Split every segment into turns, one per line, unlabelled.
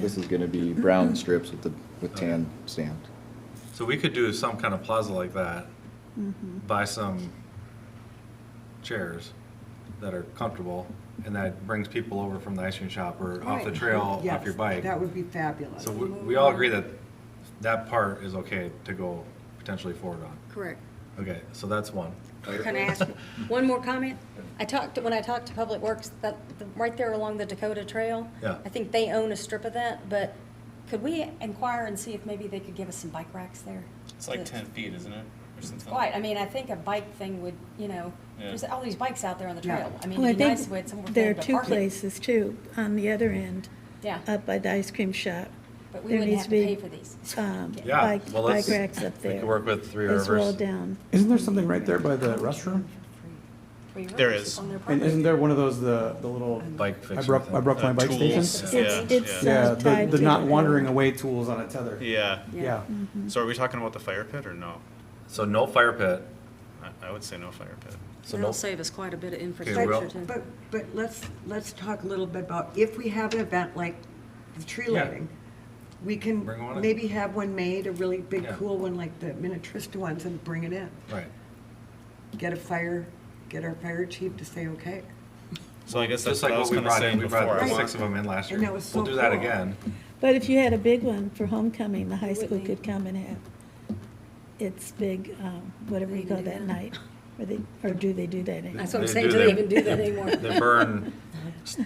This is gonna be brown strips with the, with tan stamped.
So we could do some kind of plaza like that,
Mm-hmm.
buy some chairs that are comfortable, and that brings people over from the ice cream shop or off the
Right.
trail,
Yes,
off your bike.
That would be fabulous.
So we, we all agree that that part is okay to go potentially forward on.
Correct.
Okay, so that's one.
Can I ask one more comment? I talked, when I talked to Public Works, that, the- right there along the Dakota Trail.
Yeah.
I think they own a strip of that, but could we inquire and see if maybe they could give us some bike racks there?
It's like
That-
ten feet, isn't it, or something?
Right, I mean, I think a bike thing would, you know,
Yeah.
there's all these bikes out there on the
Yeah.
trail. I mean,
Well, I
it'd be nice if we
think
had somewhere for
there are
them to
two
park it.
places too, on the other end,
Yeah,
up by the ice cream shop.
but we
there
wouldn't
needs
have to
to be,
pay for these.
Um,
Yeah,
bike,
well,
bike
let's-
racks up
we
there.
could work with Three
As well
Rivers.
down.
Isn't there something right there by the restroom?
Free
There
rides
is.
On their
And
property.
isn't there one of those, the, the little,
Bike fixture.
I brought, I
thing.
brought my
Uh,
bike
tools.
station?
Yeah,
It's, it's
yeah.
Yeah,
uh,
the,
tied
the
to
not
the-
wandering away tools on a tether.
Yeah,
Yeah.
so are we talking about the fire pit or no?
So no fire pit,
I, I would say no fire pit.
so no,
save us quite a bit of
Okay, well-
But, but let's, let's talk a little bit about, if we have an event like the tree
Yeah.
lighting, we
Bring one in.
can maybe have one made, a really big,
Yeah.
cool one like the Minnetrista ones, and bring it in.
right.
Get a fire, get our fire chief to say, okay.
So I guess that's
Just
what
like
I was
what we
kinda
brought in,
saying
we
before.
brought
Right.
I
six
want-
of them in last year.
And that was
We'll
so
do that
cool.
again.
But if you had a big one for homecoming, the high
We
school
wouldn't
could come and have its big, um, whatever you
They can
call
do
that
that.
night. Or they, or do they do that anymore?
That's what I'm
They
saying,
do
do they
that.
even do that anymore?
They burn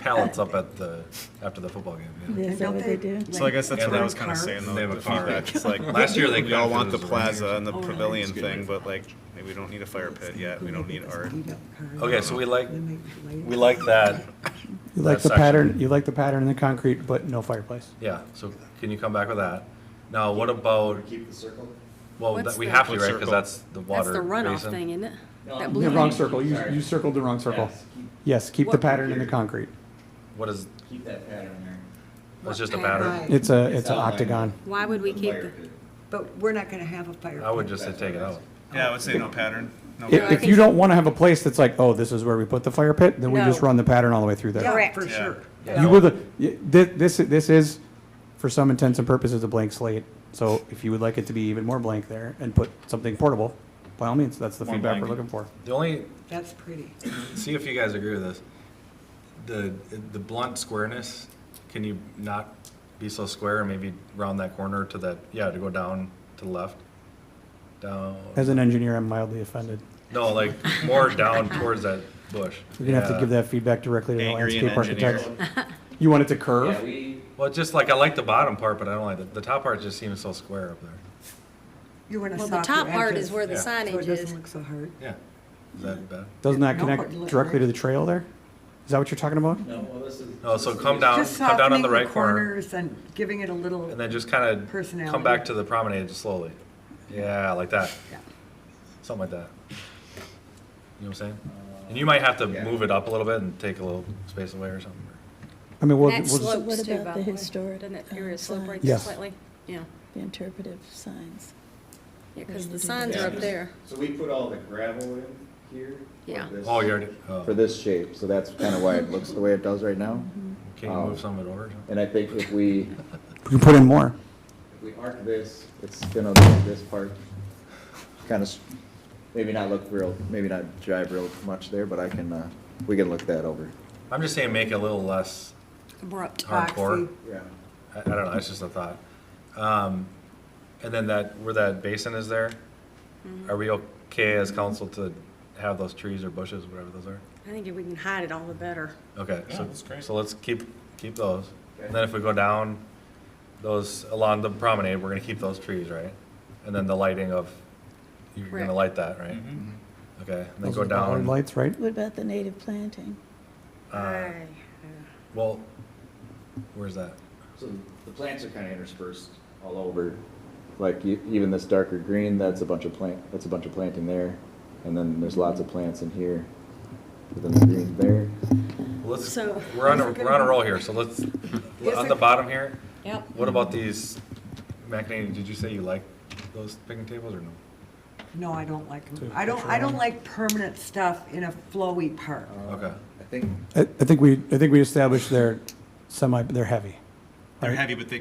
pallets up at the, after the football game. yeah.
Is
And
that
don't
what they do?
So I guess that's
And
what I
they
was
have
kinda
cars.
saying
They
though,
have a
the
car.
feedback, it's like,
Last year they
we all
got
want the
those
plaza and the
Oh, really?
pavilion thing, but like, maybe we don't need a fire pit yet, we don't need art.
Okay, so we like,
Then they light it.
we like that,
You like the
That section.
pattern, you like the pattern in the concrete, but no fireplace.
yeah, so can you come back with that? Now, what about? Keep the circle? Well,
What's
that- we
the-
have to, right, because
Circle.
that's the water basin.
isn't it? That
Yeah, wrong circle, you, you circled the wrong circle. Yes, keep the
What-
pattern in the concrete.
What is,
Keep that pattern there.
that's just a
Right.
pattern?
It's a, it's
It's
an
outlined.
octagon.
Why would we keep
Fire
it?
pit.
But we're not gonna have a fire.
I would
pit.
just say take it out.
Yeah, I would say no pattern, no.
If,
pattern.
if you don't wanna have a place that's like, oh, this is where we put the fire pit, then we just
No.
run the pattern all the way through there.
Yeah, for
Yeah.
sure.
You were the, y- thi- this, this is, for some intents and purposes, a blank slate. So if you would like it to be even more blank there and put something portable, by all means, that's the
More
feedback we're
blank.
looking for.
The only,
That's pretty.
see if you guys agree with this. The, the blunt squareness, can you not be so square and maybe round that corner to that, yeah, to go down to the left? Down,
As an engineer, I'm mildly offended.
no, like more down towards that bush.
You're gonna have to
Yeah.
give that feedback directly to the
Angry and
landscape architect.
engineer.
You want it to
Yeah,
curve?
we,
Well, just like I like the bottom part, but I don't like the, the top part. Just seems so square up there.
You wanna
Well, the
softer
top part
edges,
is where the
Yeah.
So it
signage is.
doesn't look so hard.
Yeah, is that bad?
Doesn't that
No,
connect
it looks
directly
like-
to the trail there? Is that what you're talking about?
no, well, this is.
No, Oh, so come down,
Just
Um, come down on
softening
the right corner,
corners and giving it a little.
and then just kind of come
Personality.
back to the promenade slowly. Yeah, like that,
Yeah.
something like that. You know what I'm saying? And you might have to
Yeah.
move it up a little bit and take a little space away or something.
I mean, we'll, we'll
That
just,
what
slopes too,
about
by
the
the way.
historic,
Doesn't that
uh,
area slope right
signs?
there
Yes.
slightly? Yeah,
the interpretive signs.
yeah, because the
Mhm.
signs
Yeah,
are up
just-
there.
So we put all the gravel in here. for
Yeah.
this.
Oh, you already. Oh.
For this shape, so that's kinda why it looks the way it does right now.
Mm-hmm.
Can you move some of it over?
And I think if we,
we can put in more.
if we arc this, it's gonna look this part. Kinda, s- maybe not look real, maybe not jive real much there, but I can, uh, we can look that over.
I'm just saying, make it a little less
Abrupt.
hardcore.
Boxy.
Yeah.
I, I don't know. It's just a thought. Um, and then that where that basin is there, are we okay as council to have those trees or bushes, whatever those are?
I think if we can hide it all the better.
Okay,
Yeah,
so,
that's great.
so let's keep, keep those. And then if we go down those, along the promenade, we're gonna keep those trees, right? And then the lighting of, you're gonna
Correct.
light that,
Mm-hmm.
right? Mm-hmm. Okay, and then
Those
go
are the bollard
down,
Lights, right?
What about the native planting?
uh, well, where's that?
So the plants are kinda interspersed all over, like e- even this darker green, that's a bunch of plant, that's a bunch of planting there. And then there's lots of plants in here, within the green there.
Well, Let's,
So-
we're on a, we're on a roll here, so let's, on the
it-
bottom here,
Yep.
what about these, McNamee, did you say you like those picnic tables or no?
No, I don't like them. I don't, I don't like permanent stuff in a flowy park.
Okay,
I think
I, I think we, I think we established they're semi, they're heavy,
They're
Right.
heavy, but they